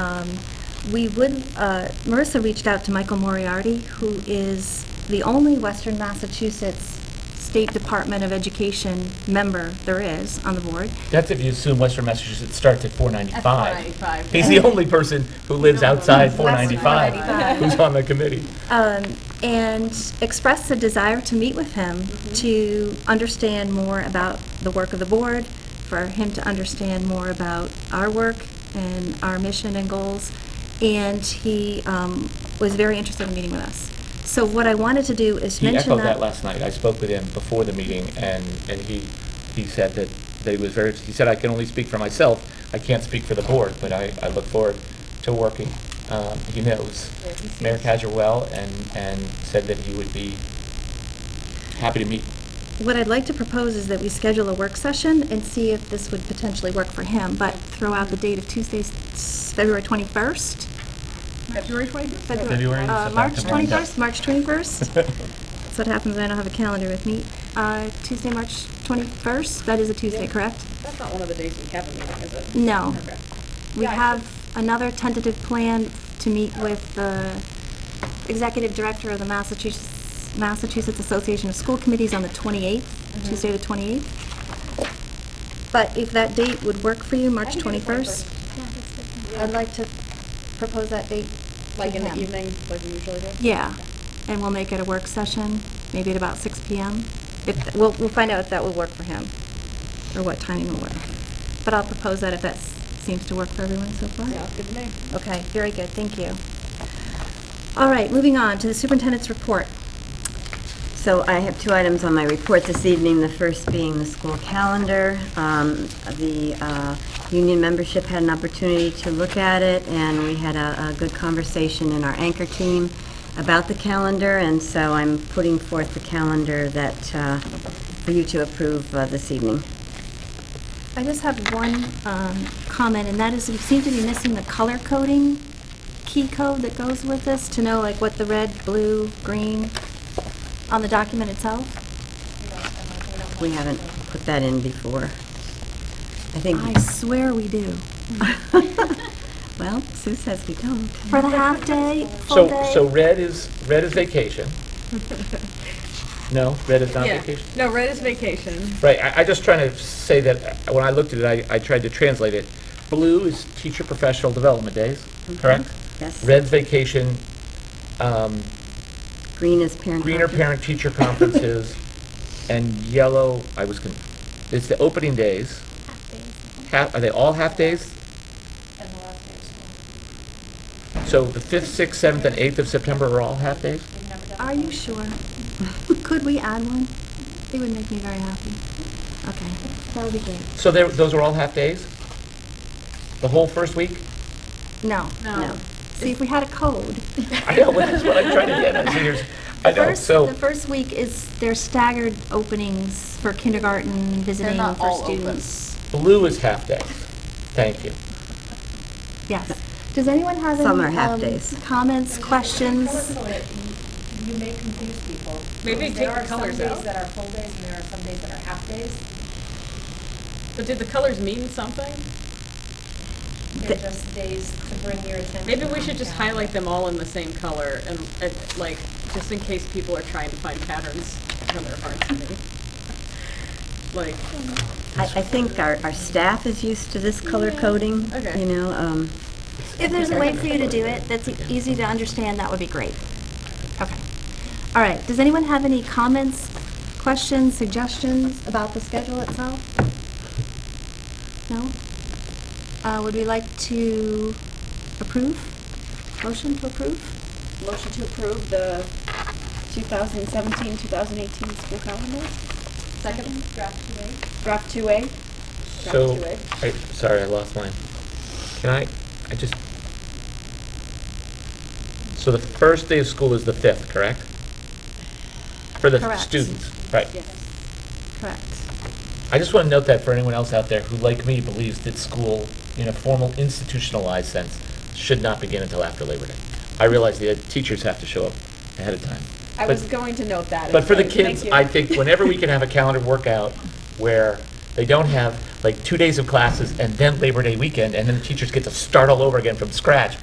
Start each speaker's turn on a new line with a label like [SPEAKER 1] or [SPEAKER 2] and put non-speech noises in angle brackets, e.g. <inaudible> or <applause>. [SPEAKER 1] Um, We would, uh, Marissa reached out to Michael Moriarty, who is the only Western Massachusetts State Department of Education member there is on the board.
[SPEAKER 2] That's if you assume Western Massachusetts starts at 495.
[SPEAKER 3] At 495,
[SPEAKER 2] He's the
[SPEAKER 3] yeah.
[SPEAKER 2] only person who lives outside 495
[SPEAKER 1] 495.
[SPEAKER 2] who's on the committee.
[SPEAKER 1] um, and expressed a desire to meet with him to understand more about the work of the board, for him to understand more about our work and our mission and goals. And he um, was very interested in meeting with us. So what I wanted to do is
[SPEAKER 2] He
[SPEAKER 1] mention that.
[SPEAKER 2] echoed that last night. I spoke with him before the meeting, and, and he, he said that, that he was very, he said, "I can only speak for myself. I can't speak for the board, but I, I look forward to working." Um, He knows
[SPEAKER 3] Yeah, he sees
[SPEAKER 2] Mayor
[SPEAKER 3] it.
[SPEAKER 2] Kajer well, and, and said that he would be happy to meet.
[SPEAKER 1] What I'd like to propose is that we schedule a work session and see if this would potentially work for him, but throw out the date of Tuesday, s- February 21st?
[SPEAKER 3] February 22nd?
[SPEAKER 2] February,
[SPEAKER 1] uh,
[SPEAKER 2] September.
[SPEAKER 1] March 21st, March 21st?
[SPEAKER 2] <laughs>
[SPEAKER 1] That's what happens when I don't have a calendar with me. Uh, Tuesday, March 21st, that is a Tuesday,
[SPEAKER 3] Yeah.
[SPEAKER 1] correct?
[SPEAKER 3] That's not one of the days we have a meeting, is it?
[SPEAKER 1] No.
[SPEAKER 3] Okay.
[SPEAKER 1] We
[SPEAKER 3] Yeah, I
[SPEAKER 1] have another tentative plan to meet with the executive director of the Massachusetts, Massachusetts Association of School Committees on the 28th,
[SPEAKER 3] Mhm.
[SPEAKER 1] Tuesday the 28th. But if that date would work for you, March
[SPEAKER 3] can do the
[SPEAKER 1] 21st?
[SPEAKER 3] Yeah.
[SPEAKER 1] I'd like to propose that date
[SPEAKER 3] Like
[SPEAKER 1] to
[SPEAKER 3] in the
[SPEAKER 1] him.
[SPEAKER 3] evening, like we usually do?
[SPEAKER 1] Yeah, and we'll make it a work session, maybe at about 6 PM. If, we'll, we'll find out if that will work for him, or what timing will work. But I'll propose that if that s- seems to work for everyone so far.
[SPEAKER 3] Yeah, that's good to me.
[SPEAKER 1] Okay, very good, thank you. All right, moving on to the superintendent's report.
[SPEAKER 4] So I have two items on my report this evening, the first being the school calendar. Um, The uh, union membership had an opportunity to look at it, and we had a a good conversation in our anchor team about the calendar, and so I'm putting forth the calendar that, uh, for you to approve uh, this evening.
[SPEAKER 1] I just have one um, comment, and that is we seem to be missing the color coding key code that goes with this to know like what the red, blue, green on the document itself.
[SPEAKER 4] We haven't put that in before. I think, <laughs>
[SPEAKER 1] I swear we do.
[SPEAKER 4] well, Sue says we don't.
[SPEAKER 1] For the half day, full
[SPEAKER 2] So,
[SPEAKER 1] day.
[SPEAKER 2] so red is, red is vacation.
[SPEAKER 3] <laughs>
[SPEAKER 2] No, red Oh. is not
[SPEAKER 3] Yeah.
[SPEAKER 2] vacation?
[SPEAKER 3] No, red is vacation.
[SPEAKER 2] Right, I, I just trying to say that, uh, when I looked at it, I, I tried to translate it. Blue is teacher professional development days,
[SPEAKER 3] Mm-hmm.
[SPEAKER 2] correct?
[SPEAKER 4] Yes.
[SPEAKER 2] Red's vacation, um,
[SPEAKER 4] Green is parent.
[SPEAKER 2] greener
[SPEAKER 3] Mm-hmm.
[SPEAKER 4] conference.
[SPEAKER 2] parent-teacher <laughs>
[SPEAKER 3] <laughs>
[SPEAKER 2] conferences, and yellow, I was, con- it's the opening days. Half, are they all half-days? So the fifth, sixth, seventh, and eighth of September are all half-days?
[SPEAKER 1] Are you sure? <laughs> Could we add one? It would make me very happy. Okay, that would be great.
[SPEAKER 2] So there, those are all half-days? The whole first week?
[SPEAKER 1] No.
[SPEAKER 4] No.
[SPEAKER 1] See, if we had a code.
[SPEAKER 2] <laughs> I know, but that's what I'm trying to
[SPEAKER 1] <laughs>
[SPEAKER 2] get at, seniors. I
[SPEAKER 1] The
[SPEAKER 2] know,
[SPEAKER 1] first-
[SPEAKER 2] so.
[SPEAKER 1] The first week is, their staggered openings for kindergarten, visiting
[SPEAKER 3] not all
[SPEAKER 1] for
[SPEAKER 3] open.
[SPEAKER 1] students.
[SPEAKER 2] Blue is half day. Thank you.
[SPEAKER 1] Yes. Does anyone have any?
[SPEAKER 4] Some are half
[SPEAKER 1] um,
[SPEAKER 4] days.
[SPEAKER 1] Comments, questions?
[SPEAKER 5] You may confuse people.
[SPEAKER 3] Maybe
[SPEAKER 5] Because
[SPEAKER 3] take the colors
[SPEAKER 5] There are
[SPEAKER 3] out.
[SPEAKER 5] some days that are full days and there are some days that are half days.
[SPEAKER 3] But did the colors mean something?
[SPEAKER 5] They're just days to bring your attention.
[SPEAKER 3] Maybe we should just
[SPEAKER 5] down.
[SPEAKER 3] highlight them all in the same color and, and, like, just in case people are trying to find patterns when there aren't any. <laughs> Like,
[SPEAKER 4] I, I think our, our staff is used to this color coding,
[SPEAKER 3] Okay.
[SPEAKER 4] you know, um,
[SPEAKER 1] If there's a way for you to do it that's easy to understand, that would be great. Okay. All right, does anyone have any comments, questions, suggestions about the schedule itself? No? Uh, Would we like to approve? Motion to approve?
[SPEAKER 6] Motion to approve the 2017-2018 school calendar,
[SPEAKER 5] Second draft, you may.
[SPEAKER 6] draft 2A.
[SPEAKER 2] So,
[SPEAKER 6] Back
[SPEAKER 2] I, sorry, I lost mine. Can I, I just. So the first day of school is the fifth, correct? For the
[SPEAKER 1] Correct.
[SPEAKER 2] students, right?
[SPEAKER 1] Correct.
[SPEAKER 2] I just want to note that for anyone else out there who, like me, believes that school, in a formal institutionalized sense, should not begin until after Labor Day. I realize the teachers have to show up ahead of time.
[SPEAKER 6] I
[SPEAKER 2] but-
[SPEAKER 6] was going to note that.
[SPEAKER 2] But for the
[SPEAKER 6] Thank
[SPEAKER 2] kids,
[SPEAKER 6] you. <laughs>
[SPEAKER 2] I think whenever we can have a calendar workout where They don't have like two days of classes and then Labor Day weekend, and then the teachers get to start all over again from scratch